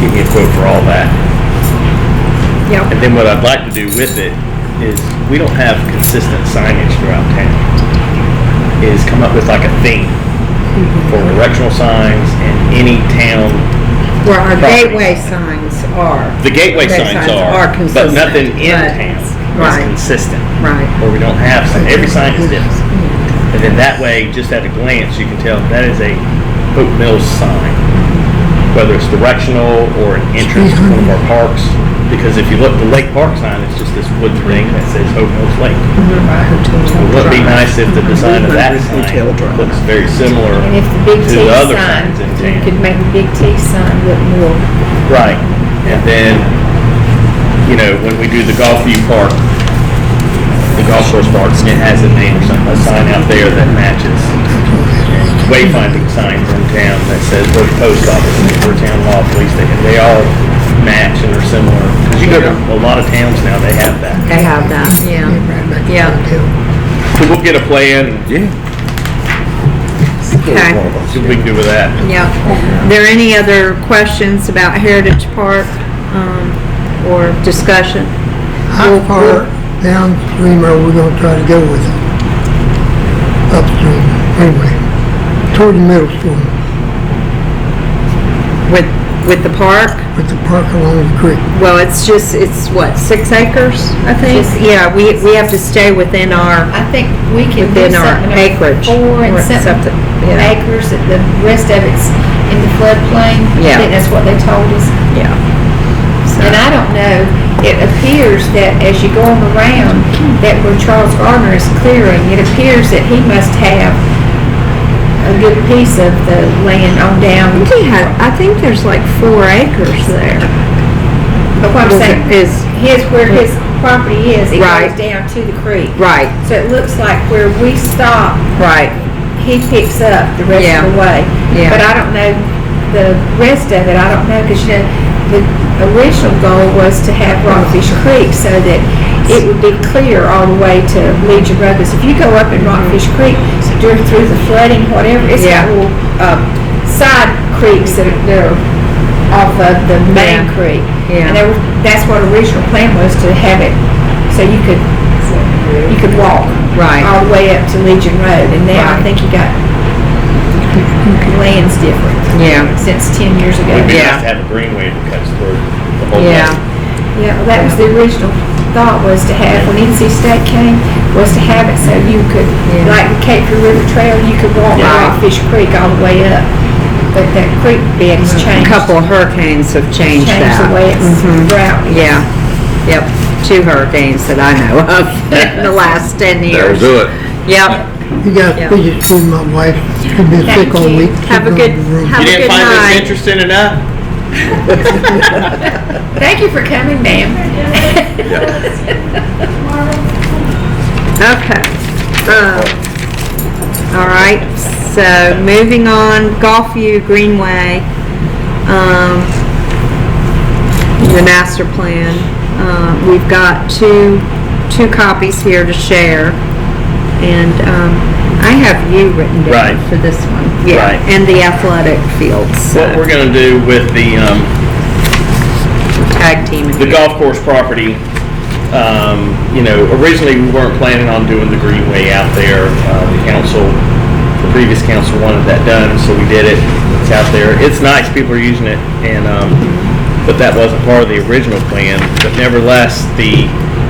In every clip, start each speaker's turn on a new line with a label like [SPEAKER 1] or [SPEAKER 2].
[SPEAKER 1] get me a quote for all that.
[SPEAKER 2] Yep.
[SPEAKER 1] And then what I'd like to do with it is, we don't have consistent signage throughout town. Is come up with like a theme for directional signs and any town,
[SPEAKER 2] Where our
[SPEAKER 1] Property.
[SPEAKER 2] gateway signs are.
[SPEAKER 1] the gateway
[SPEAKER 2] Gateway
[SPEAKER 1] signs are, but
[SPEAKER 2] consistent,
[SPEAKER 1] nothing in
[SPEAKER 2] but-
[SPEAKER 1] town is
[SPEAKER 2] Right,
[SPEAKER 1] consistent.
[SPEAKER 2] right.
[SPEAKER 1] Or we don't have, some. every sign is different. And then that way, just at a glance, you can tell that is a Hope Mills sign, whether it's directional or an entrance to one of our parks. Because if you look at the Lake Park sign, it's just this wood thing that says Hope Mills Lake. It would be nice if the design of that sign looks very similar
[SPEAKER 3] And if the big
[SPEAKER 1] to
[SPEAKER 3] T
[SPEAKER 1] the other
[SPEAKER 3] sign,
[SPEAKER 1] signs in
[SPEAKER 3] you could
[SPEAKER 1] town.
[SPEAKER 3] make a big T sign look more,
[SPEAKER 1] Right. And then, you know, when we do the Golf View Park, the golf course parks, it has a name or something, a sign out there that matches. wayfinding signs in town that says where the post office is, where town law, police station, they all match and are similar. Because you go to a lot of towns now, they have that.
[SPEAKER 2] They have that, yeah, yeah.
[SPEAKER 1] So we'll get a plan, and
[SPEAKER 2] Okay,
[SPEAKER 1] see what we can do with that.
[SPEAKER 2] yeah. There any other questions about Heritage Park, um, or discussion?
[SPEAKER 4] How far downstream are we gonna try to go with it? Upstream, anyway, toward the middle school,
[SPEAKER 2] With, with the park?
[SPEAKER 4] with the park along the creek.
[SPEAKER 2] Well, it's just, it's what, six acres, I think?
[SPEAKER 3] Just-
[SPEAKER 2] Yeah, we, we have to stay within our,
[SPEAKER 3] I think we can do
[SPEAKER 2] within our
[SPEAKER 3] something. like
[SPEAKER 2] acreage.
[SPEAKER 3] Four and
[SPEAKER 2] or
[SPEAKER 3] something
[SPEAKER 2] Yeah,
[SPEAKER 3] acres, and the rest of it's in the floodplain.
[SPEAKER 2] Yeah.
[SPEAKER 3] I think that's what they told us.
[SPEAKER 2] yeah. So-
[SPEAKER 3] And I don't know, it appears that as you go on around, that where Charles Gardner is clearing, it appears that he must have a good piece of the land on down.
[SPEAKER 2] I think he had- I think there's like four acres there.
[SPEAKER 3] But what I'm saying,
[SPEAKER 2] Is,
[SPEAKER 3] his, where his property is, it
[SPEAKER 2] Right.
[SPEAKER 3] goes down to the creek.
[SPEAKER 2] right,
[SPEAKER 3] So it looks like where we stop,
[SPEAKER 2] right,
[SPEAKER 3] he picks up the rest
[SPEAKER 2] Yeah.
[SPEAKER 3] of the way.
[SPEAKER 2] Yeah.
[SPEAKER 3] But I don't know the rest of it. I don't know because you know the original goal was to have Rockfish Creek so that it would be clear all the way to Legion Road. Because if you go up in Rockfish Creek during through the flooding, whatever, it's
[SPEAKER 2] Yeah.
[SPEAKER 3] got little um, side creeks that are, that are off of the main
[SPEAKER 2] Yeah.
[SPEAKER 3] creek.
[SPEAKER 2] Yeah.
[SPEAKER 3] And they were, that's what original plan was to have it so you could you could walk
[SPEAKER 2] right.
[SPEAKER 3] all the way up to Legion Road, and now I
[SPEAKER 2] Right.
[SPEAKER 3] think you got, the land's different.
[SPEAKER 2] Yeah.
[SPEAKER 3] Since ten years ago.
[SPEAKER 1] It'd be
[SPEAKER 2] Yeah.
[SPEAKER 1] nice to have a greenway that cuts through the
[SPEAKER 3] Oh.
[SPEAKER 1] whole thing.
[SPEAKER 2] Yeah.
[SPEAKER 3] Yeah, well, that was the original thought was to have, when NC State came, was to have it so you could,
[SPEAKER 2] Yeah.
[SPEAKER 3] like the Cape Fear River Trail, you could walk
[SPEAKER 1] Yeah.
[SPEAKER 3] along Fish Creek all the way up. But that creek bed has
[SPEAKER 2] Mm-hmm. A
[SPEAKER 3] changed.
[SPEAKER 2] couple of hurricanes have changed that.
[SPEAKER 3] Changed the way it's
[SPEAKER 2] Mhm.
[SPEAKER 3] routed.
[SPEAKER 2] Yeah, yep, two hurricanes that I know of in the last ten
[SPEAKER 5] That'll
[SPEAKER 2] years.
[SPEAKER 5] do it.
[SPEAKER 2] Yep,
[SPEAKER 4] You guys,
[SPEAKER 2] Yeah.
[SPEAKER 4] please excuse my wife, she's been sick all week. She's
[SPEAKER 2] Have a
[SPEAKER 4] not
[SPEAKER 2] good-
[SPEAKER 4] in the room.
[SPEAKER 2] have-
[SPEAKER 1] You
[SPEAKER 2] a
[SPEAKER 1] didn't
[SPEAKER 2] good
[SPEAKER 1] find
[SPEAKER 2] night.
[SPEAKER 1] this interesting enough?
[SPEAKER 3] Thank you for coming, ma'am.
[SPEAKER 2] okay. Um, All right, so moving on, Golfview Greenway, um, the master plan. Uh, We've got two, two copies here to share. And um, I have you written
[SPEAKER 1] Right.
[SPEAKER 2] down for this one. Yeah,
[SPEAKER 1] Right.
[SPEAKER 2] And the athletic fields, so
[SPEAKER 1] What we're gonna do with the, um,
[SPEAKER 2] tag team. and-
[SPEAKER 1] the golf course property, um, you know, originally we weren't planning on doing the greenway out there. Uh, the council, the previous council wanted that done, so we did it. It's out there. It's nice. People are using it, and um, but that wasn't part of the original plan. But nevertheless, the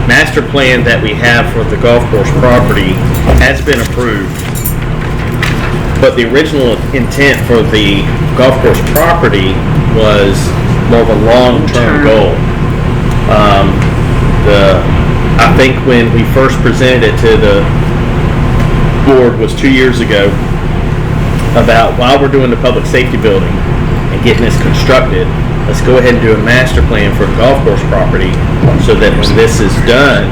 [SPEAKER 1] master plan that we have for the golf course property has been approved. But the original intent for the golf course property was more of a long-term
[SPEAKER 2] Long-term.
[SPEAKER 1] goal. Um, the, I think when we first presented it to the board was two years ago about while we're doing the public safety building and getting this constructed, let's go ahead and do a master plan for the golf course property so that when this is done,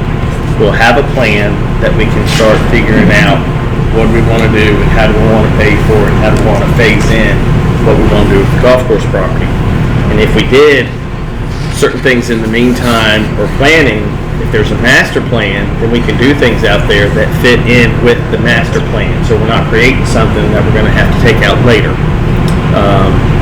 [SPEAKER 1] we'll have a plan that we can start figuring out what we want to do and how do we want to pay for it, and how do we want to phase in what we want to do with the golf course property. And if we did, certain things in the meantime or planning, if there's a master plan, then we can do things out there that fit in with the master plan. So we're not creating something that we're gonna have to take out later. Um,